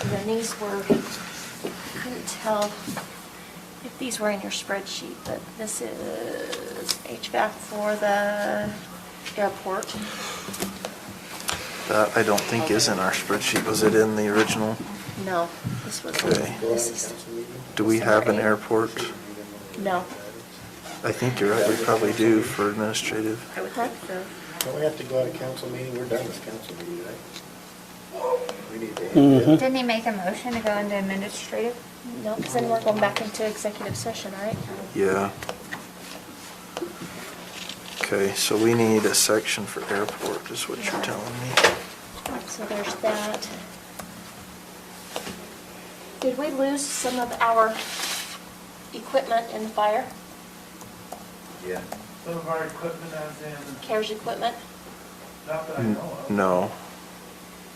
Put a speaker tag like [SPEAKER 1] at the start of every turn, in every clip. [SPEAKER 1] the these were, couldn't tell if these were in your spreadsheet, but this is HVAC for the airport.
[SPEAKER 2] That I don't think is in our spreadsheet. Was it in the original?
[SPEAKER 1] No, this was,
[SPEAKER 2] Okay.
[SPEAKER 1] this is,
[SPEAKER 2] Do we have an
[SPEAKER 1] Sorry.
[SPEAKER 2] airport?
[SPEAKER 1] no.
[SPEAKER 2] I think you're right, we probably do for administrative.
[SPEAKER 1] I would think so.
[SPEAKER 3] Don't we have to go out of council meeting? We're done with council meeting, right? We need to.
[SPEAKER 4] Mhm.
[SPEAKER 5] Didn't he make a motion to go into administrative?
[SPEAKER 1] No, because then we're going back into executive session, right?
[SPEAKER 2] Yeah. Okay, so we need a section for airport, is what you're telling me.
[SPEAKER 1] So there's that. Did we lose some of our equipment in the fire,
[SPEAKER 3] Yeah.
[SPEAKER 6] Some of our equipment as in,
[SPEAKER 1] CARES equipment?
[SPEAKER 6] not that I know of.
[SPEAKER 2] No.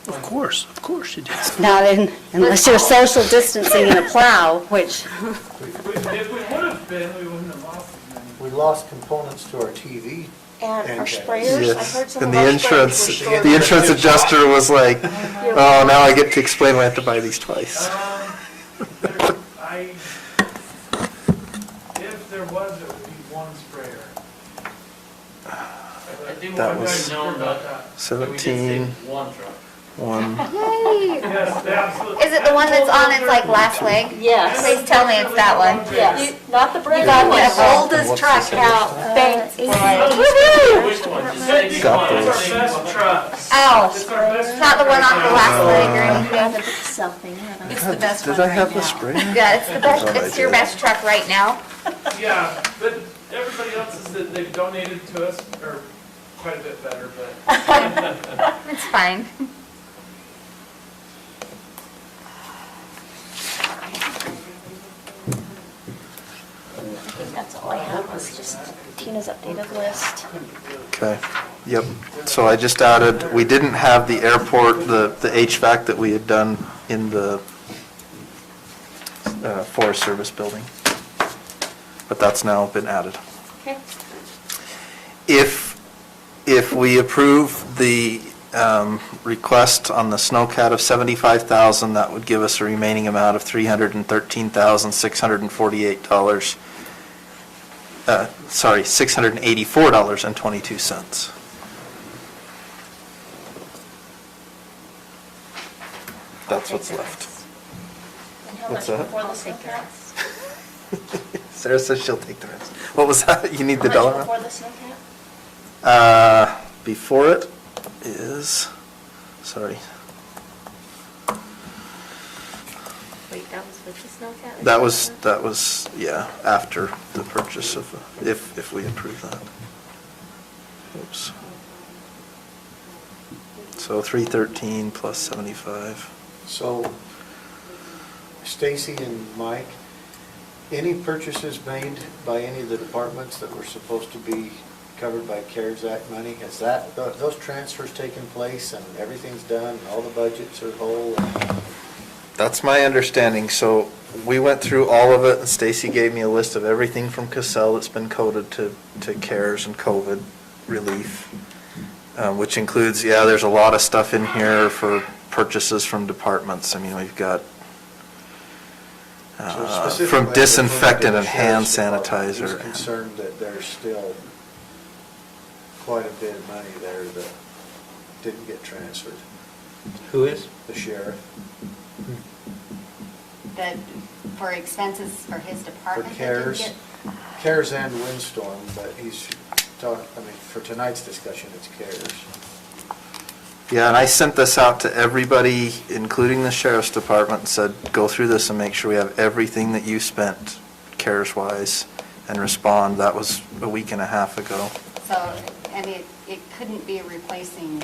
[SPEAKER 4] Of course, of course you do.
[SPEAKER 7] Not in, unless you're social distancing in a plow, which
[SPEAKER 6] We- If we would have been, we wouldn't have lost as many.
[SPEAKER 3] We lost components to our TV.
[SPEAKER 1] And our
[SPEAKER 3] Okay.
[SPEAKER 1] sprayers, I heard
[SPEAKER 2] Yes,
[SPEAKER 1] some
[SPEAKER 2] and
[SPEAKER 1] of
[SPEAKER 2] the
[SPEAKER 1] our sprayers
[SPEAKER 2] insurance,
[SPEAKER 1] were short.
[SPEAKER 2] the insurance adjuster was like, oh, now I get to explain why I have to buy these twice.
[SPEAKER 6] Um, there- I, if there was, it would be one sprayer.
[SPEAKER 8] I think
[SPEAKER 2] That
[SPEAKER 8] one
[SPEAKER 2] was-
[SPEAKER 8] guy known about that. But we did save
[SPEAKER 2] Seventeen,
[SPEAKER 8] one truck.
[SPEAKER 2] one.
[SPEAKER 5] Yay!
[SPEAKER 6] Yes, they absolutely.
[SPEAKER 5] Is it the one that's on its like last leg?
[SPEAKER 7] Yes.
[SPEAKER 5] Please tell me it's that one.
[SPEAKER 7] Yes.
[SPEAKER 1] Not the brand
[SPEAKER 7] got
[SPEAKER 1] new
[SPEAKER 7] the
[SPEAKER 1] one.
[SPEAKER 7] oldest truck out.
[SPEAKER 5] Uh,
[SPEAKER 7] Thanks, Brian.
[SPEAKER 8] Which one? Just
[SPEAKER 6] It's
[SPEAKER 8] save
[SPEAKER 2] Got
[SPEAKER 6] our
[SPEAKER 8] one.
[SPEAKER 2] this.
[SPEAKER 6] best trucks.
[SPEAKER 5] Ow,
[SPEAKER 6] It's our best.
[SPEAKER 5] not the one on the last leg or
[SPEAKER 4] Uh.
[SPEAKER 5] anything.
[SPEAKER 1] Rather than Something, I don't know.
[SPEAKER 5] It's the best one
[SPEAKER 2] Did I
[SPEAKER 5] right
[SPEAKER 2] have the
[SPEAKER 5] now.
[SPEAKER 2] spray?
[SPEAKER 5] Yeah, it's the best, it's your best truck right now.
[SPEAKER 6] Yeah, but everybody else is, that they've donated to us are quite a bit better, but
[SPEAKER 5] It's fine.
[SPEAKER 1] I think that's all I have, was just Tina's updated list.
[SPEAKER 2] Okay, yep. So I just added, we didn't have the airport, the, the HVAC that we had done in the uh, Forest Service building. But that's now been added.
[SPEAKER 1] Okay.
[SPEAKER 2] If, if we approve the um, request on the snowcat of 75,000, that would give us a remaining amount of $313,648. uh, Sorry, $684.22. That's what's left.
[SPEAKER 1] And how much
[SPEAKER 2] What's that?
[SPEAKER 1] before the snowcats?
[SPEAKER 2] Sarah says she'll take the rest. What was that? You need the
[SPEAKER 1] How
[SPEAKER 2] dollar?
[SPEAKER 1] much
[SPEAKER 2] amount?
[SPEAKER 1] before the snowcat?
[SPEAKER 2] Uh, Before it is, sorry,
[SPEAKER 5] Wait, that was with the snowcat?
[SPEAKER 2] that was, that was, yeah, after the purchase of, if, if we approve that. Oops. So 313 plus 75.
[SPEAKER 3] So Stacy and Mike, any purchases made by any of the departments that were supposed to be covered by CARES Act money? Has that, tho- those transfers taken place and everything's done, and all the budgets are whole? and-
[SPEAKER 2] That's my understanding. So we went through all of it and Stacy gave me a list of everything from Cassell that's been coded to, to CARES and COVID relief. uh, which includes, yeah, there's a lot of stuff in here for purchases from departments. I mean, we've got uh,
[SPEAKER 3] So
[SPEAKER 2] from
[SPEAKER 3] specifically,
[SPEAKER 2] disinfectant and hand
[SPEAKER 3] the sheriff's department, he's
[SPEAKER 2] sanitizer.
[SPEAKER 3] concerned that there's still quite a bit of money there that didn't get transferred.
[SPEAKER 9] Who is?
[SPEAKER 3] The sheriff,
[SPEAKER 4] That for expenses for his
[SPEAKER 3] for
[SPEAKER 4] department. that didn't
[SPEAKER 3] CARES,
[SPEAKER 4] get-
[SPEAKER 3] CARES and windstorm, but he's talking, I mean, for tonight's discussion, it's CARES.
[SPEAKER 2] Yeah, and I sent this out to everybody, including the sheriff's department, and said, go through this and make sure we have everything that you spent CARES-wise and respond. That was a week and a half ago.
[SPEAKER 4] So, and it, it couldn't be replacing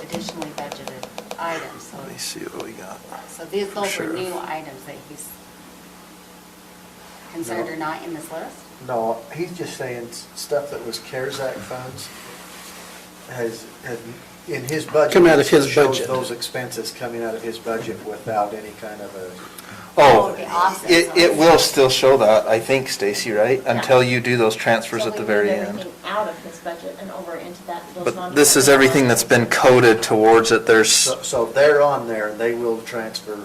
[SPEAKER 4] additionally budgeted items, so.
[SPEAKER 2] Let me see what we got.
[SPEAKER 4] So these,
[SPEAKER 2] For
[SPEAKER 4] those were
[SPEAKER 2] sure.
[SPEAKER 4] new items that he's concerned
[SPEAKER 3] No.
[SPEAKER 4] are not in this list?
[SPEAKER 3] No, he's just saying s- stuff that was CARES Act funds has, had- in his budget.
[SPEAKER 9] Come out of his
[SPEAKER 3] shows
[SPEAKER 9] budget.
[SPEAKER 3] Those expenses coming out of his budget without any kind of a.
[SPEAKER 2] Oh,
[SPEAKER 4] The offset,
[SPEAKER 2] it,
[SPEAKER 4] so-
[SPEAKER 2] it will still show that, I think, Stacy, right? Until you do those transfers
[SPEAKER 1] So
[SPEAKER 2] at the
[SPEAKER 1] we
[SPEAKER 2] very
[SPEAKER 1] moved
[SPEAKER 2] end.
[SPEAKER 1] everything Out of his budget and over into that. those
[SPEAKER 2] But this is
[SPEAKER 1] non-departmental
[SPEAKER 2] everything that's been coded towards it. There's.
[SPEAKER 3] So so they're on there and they will transfer